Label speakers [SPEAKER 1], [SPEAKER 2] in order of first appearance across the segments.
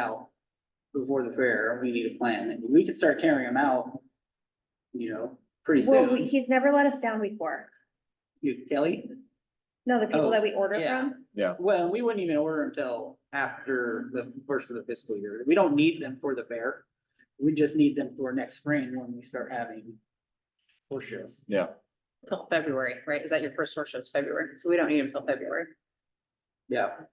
[SPEAKER 1] out before the fair, we need a plan, and we could start carrying them out, you know, pretty
[SPEAKER 2] Well, we-
[SPEAKER 1] soon.
[SPEAKER 2] he's never let us down before.
[SPEAKER 1] You- Kelly?
[SPEAKER 2] No, the
[SPEAKER 1] Oh,
[SPEAKER 2] people that we order
[SPEAKER 1] yeah.
[SPEAKER 2] from.
[SPEAKER 1] Well, we wouldn't even order them till after the first of the fiscal year. We don't need them for the fair. We just need them for next spring when we start having horse shows.
[SPEAKER 3] Yeah,
[SPEAKER 4] Till February, right? Is that your first horse show is February? So we don't need them till February.
[SPEAKER 1] Yeah.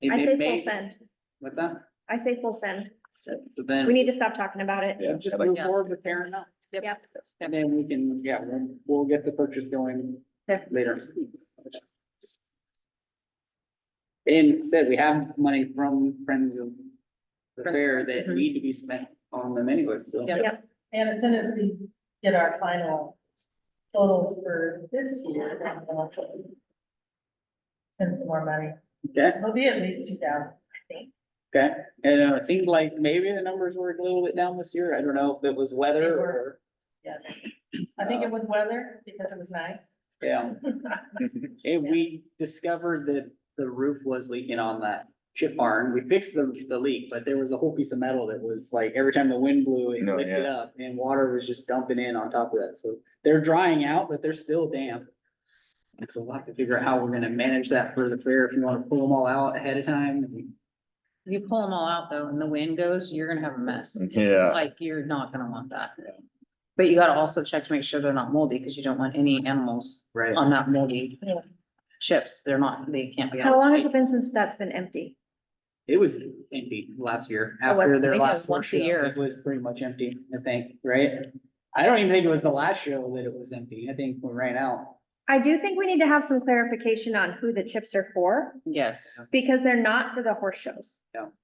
[SPEAKER 1] It
[SPEAKER 2] I
[SPEAKER 1] may-
[SPEAKER 2] say
[SPEAKER 1] may-
[SPEAKER 2] full send.
[SPEAKER 1] What's that?
[SPEAKER 2] I say full send.
[SPEAKER 1] So
[SPEAKER 2] We
[SPEAKER 1] then,
[SPEAKER 2] need to stop talking about it.
[SPEAKER 3] yeah.
[SPEAKER 1] just
[SPEAKER 3] I like-
[SPEAKER 1] move forward with carrying them out.
[SPEAKER 2] Yep.
[SPEAKER 1] And then we can, yeah, we'll, we'll get the purchase going
[SPEAKER 4] Okay.
[SPEAKER 1] later. And said, we have money from Friends of the Fair that
[SPEAKER 5] Mm-hmm.
[SPEAKER 4] Mhm.
[SPEAKER 1] need to be spent on them anyway, so.
[SPEAKER 4] Yeah.
[SPEAKER 5] And as soon as we get our final totals for this year, then we'll send some more money.
[SPEAKER 1] Okay,
[SPEAKER 5] It'll be at least two thousand.
[SPEAKER 1] okay. And uh, it seemed like maybe the numbers were a little bit down this year. I don't know if it was
[SPEAKER 5] They
[SPEAKER 1] weather
[SPEAKER 5] were.
[SPEAKER 1] or,
[SPEAKER 5] Yeah. I think it was weather because it was nice.
[SPEAKER 1] yeah. And we discovered that the roof was leaking on that chip barn. We fixed the, the leak, but there was a whole piece of metal that was like, every time the wind blew, it
[SPEAKER 3] No,
[SPEAKER 1] lifted
[SPEAKER 3] yeah.
[SPEAKER 1] up and water was just dumping in on top of that. So they're drying out, but they're still damp. And so we'll have to figure out how we're gonna manage that for the fair, if you wanna pull them all out ahead of time.
[SPEAKER 4] If you pull them all out though and the wind goes, you're gonna have a mess.
[SPEAKER 3] Yeah,
[SPEAKER 4] Like, you're not gonna want that. But you gotta also check to make sure they're not moldy, because you don't want any animals
[SPEAKER 1] Right.
[SPEAKER 4] on that moldy
[SPEAKER 5] Yeah.
[SPEAKER 4] chips. They're not, they can't be. on
[SPEAKER 2] How long
[SPEAKER 4] the
[SPEAKER 2] has it
[SPEAKER 4] plate.
[SPEAKER 2] been since that's been empty?
[SPEAKER 1] It was empty last year,
[SPEAKER 4] Oh, I
[SPEAKER 1] after
[SPEAKER 4] think
[SPEAKER 1] their
[SPEAKER 4] it
[SPEAKER 1] last
[SPEAKER 4] was
[SPEAKER 1] four
[SPEAKER 4] once a
[SPEAKER 1] show,
[SPEAKER 4] year.
[SPEAKER 1] it was pretty much empty, I think, right? I don't even think it was the last show that it was empty, I think we ran out.
[SPEAKER 2] I do think we need to have some clarification on who the chips are for,
[SPEAKER 4] Yes,
[SPEAKER 2] because they're not for the horse shows,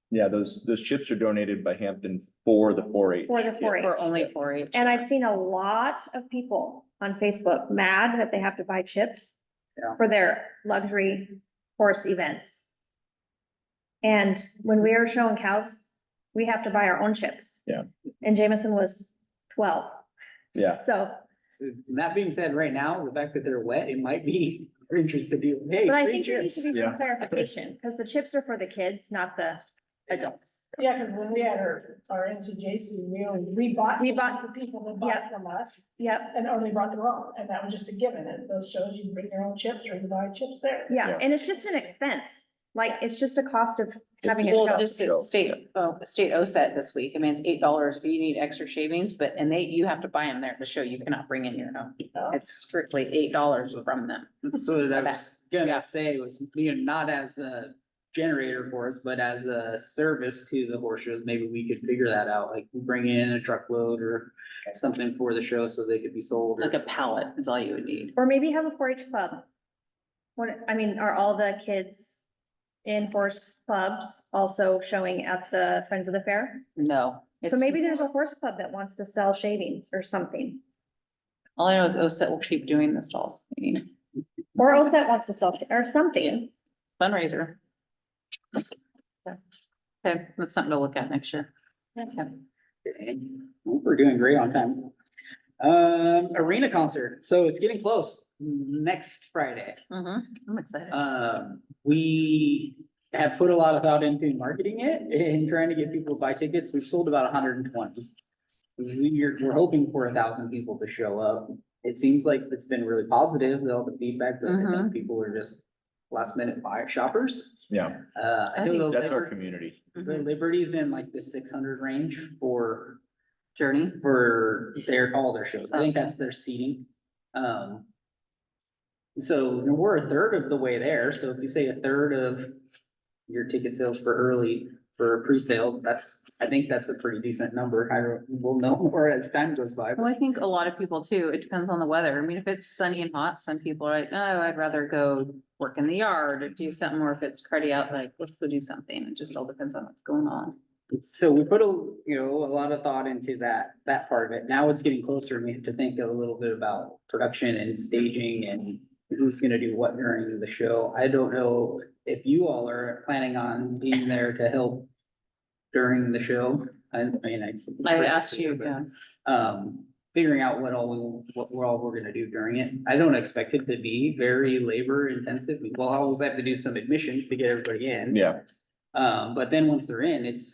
[SPEAKER 3] yeah, those, those chips are donated by Hampton for the four H.
[SPEAKER 2] for the four H.
[SPEAKER 4] for only four H.
[SPEAKER 2] And I've seen a lot of people on Facebook mad that they have to buy chips
[SPEAKER 1] Yeah.
[SPEAKER 2] for their luxury horse events. And when we are showing cows, we have to buy our own chips.
[SPEAKER 3] Yeah.
[SPEAKER 2] And Jameson was twelve,
[SPEAKER 3] Yeah,
[SPEAKER 2] so,
[SPEAKER 1] So that being said, right now, the fact that they're wet, it might be of interest to do, hey,
[SPEAKER 2] but I
[SPEAKER 1] free
[SPEAKER 2] think there needs
[SPEAKER 1] chips.
[SPEAKER 2] to be
[SPEAKER 3] Yeah.
[SPEAKER 2] some clarification, because the chips are for the kids, not the adults.
[SPEAKER 5] Yeah, because when we had our, our NCJC, we only, we bought, we bought the people that
[SPEAKER 2] Yeah.
[SPEAKER 5] bought from us
[SPEAKER 2] Yep,
[SPEAKER 5] and only brought their own. And that was just a given. And those shows, you bring your own chips or you buy chips there.
[SPEAKER 2] yeah,
[SPEAKER 3] Yeah.
[SPEAKER 2] and it's just an expense, like, it's just a cost of having a
[SPEAKER 4] Well,
[SPEAKER 2] show.
[SPEAKER 4] just it's state, oh, state OSET this week. I mean, it's eight dollars if you need extra shavings, but, and they, you have to buy them there at the show. You cannot bring in your own.
[SPEAKER 5] Oh.
[SPEAKER 4] It's strictly eight dollars from them.
[SPEAKER 1] So that I was
[SPEAKER 4] Yeah.
[SPEAKER 1] gonna say was, you know, not as a generator for us, but as a service to the horse shows, maybe we could figure that out, like bring in a truckload or something for the show so they could be sold. or-
[SPEAKER 4] Like a pallet is all you would need.
[SPEAKER 2] Or maybe have a four H club. What, I mean, are all the kids in horse clubs also showing at the Friends of the Fair?
[SPEAKER 4] No.
[SPEAKER 2] So
[SPEAKER 4] it's-
[SPEAKER 2] maybe there's a horse club that wants to sell shavings or something,
[SPEAKER 4] All I know is OSET will keep doing the stalls. I mean,
[SPEAKER 2] or OSET wants to sell, or something.
[SPEAKER 4] fundraiser. Okay, that's something to look at next year. Okay.
[SPEAKER 1] Okay. We're doing great on time. Um, arena concert, so it's getting close, next Friday.
[SPEAKER 4] Mhm, I'm excited.
[SPEAKER 1] Um, we have put a lot of thought into marketing it and trying to get people to buy tickets. We've sold about hundred and twenty. We're, we're hoping for a thousand people to show up. It seems like it's been really positive, all the feedback, but I think
[SPEAKER 4] Mhm.
[SPEAKER 1] people are just last minute buyer shoppers.
[SPEAKER 3] yeah,
[SPEAKER 1] Uh, I know
[SPEAKER 4] I
[SPEAKER 1] those
[SPEAKER 3] that's our
[SPEAKER 1] Liber-
[SPEAKER 3] community.
[SPEAKER 1] the
[SPEAKER 4] Mhm.
[SPEAKER 1] Liberty's in like the six hundred range for
[SPEAKER 4] Journey.
[SPEAKER 1] for their, all their shows. I think that's their seating. Um. So we're a third of the way there. So if you say a third of your ticket sales for early for a pre-sale, that's, I think that's a pretty decent number. I don't- we'll know more as time goes by.
[SPEAKER 4] Well, I think a lot of people too, it depends on the weather. I mean, if it's sunny and hot, some people are like, oh, I'd rather go work in the yard or do something, or if it's cruddy out, like, let's go do something. It just all depends on what's going on.
[SPEAKER 1] So we put a, you know, a lot of thought into that, that part of it. Now it's getting closer. and We have to think a little bit about production and staging and who's gonna do what during the show. I don't know if you all are planning on being there to help during the show. I mean, I.
[SPEAKER 4] I asked you, yeah,
[SPEAKER 1] Um, figuring out what all, we- what we're all we're gonna do during it. I don't expect it to be very labor intensive. We'll always have to do some admissions to get everybody in.
[SPEAKER 3] Yeah,
[SPEAKER 1] Um, but then once they're in, it's